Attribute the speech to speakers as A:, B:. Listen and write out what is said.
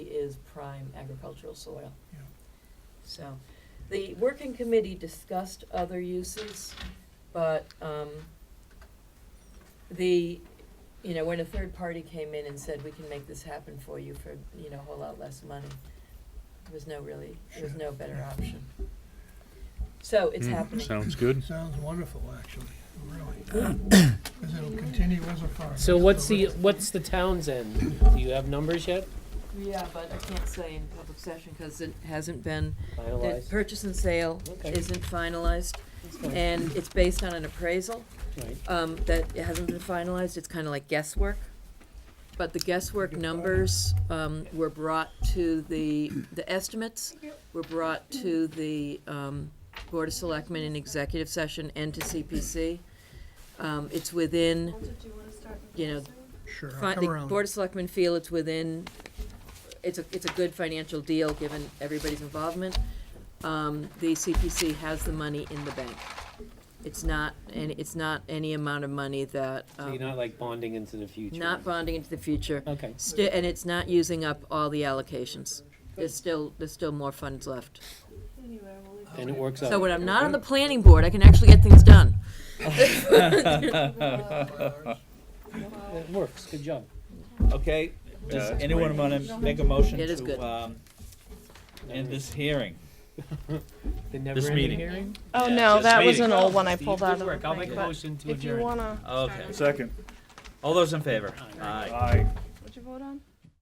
A: is prime agricultural soil.
B: Yeah.
A: So, the working committee discussed other uses, but, um, the, you know, when a third party came in and said, we can make this happen for you for, you know, a whole lot less money, there was no really, there was
B: Sure.
A: no better option. So it's
C: Hmm,
A: happening.
C: Sounds good.
B: Sounds wonderful, actually, really. Because it'll continue as a farm.
D: So what's the, what's the town's end? Do you have numbers yet?
A: Yeah, but I can't say in public session, cause it hasn't been, the
D: Finalized?
A: purchase and sale
D: Okay.
A: isn't finalized,
D: That's fine.
A: and it's based on an appraisal.
D: Right.
A: um, that it hasn't been finalized, it's kind of like guesswork. But the guesswork numbers, um, were brought to the, the estimates were brought to the, um, Board of Selectmen in executive session and to CPC. Um, it's within, you know,
B: Sure,
A: fi-
B: I'll
A: the
B: come around.
A: Board of Selectmen feel it's within, it's a, it's a good financial deal, given everybody's involvement. Um, the CPC has the money in the bank. It's not, and it's not any amount of money that,
D: So
A: um,
D: you're not like bonding into the future?
A: not bonding into the future,
D: Okay,
A: sti- and it's not using up all the allocations. There's still, there's still more funds left.
D: and it works out.
A: So when I'm not on the planning board, I can actually get things done.
D: It works, good job.
E: Okay, does
C: Yeah, that's
E: anyone wanna make a motion
A: It is good.
E: to, um, end this hearing?
D: The never-ending
E: meeting.
D: hearing?
F: Oh
E: Yeah,
F: no,
E: just
F: that was
E: waiting.
F: an old one I
D: Steve,
F: pulled
D: good
F: out of the
D: work. I'll make
F: thing,
D: a
F: but
D: motion to
F: If you
D: adjourn.
F: wanna,
E: Okay,
C: Second.
E: all those in favor? Aye.
F: what'd you vote on?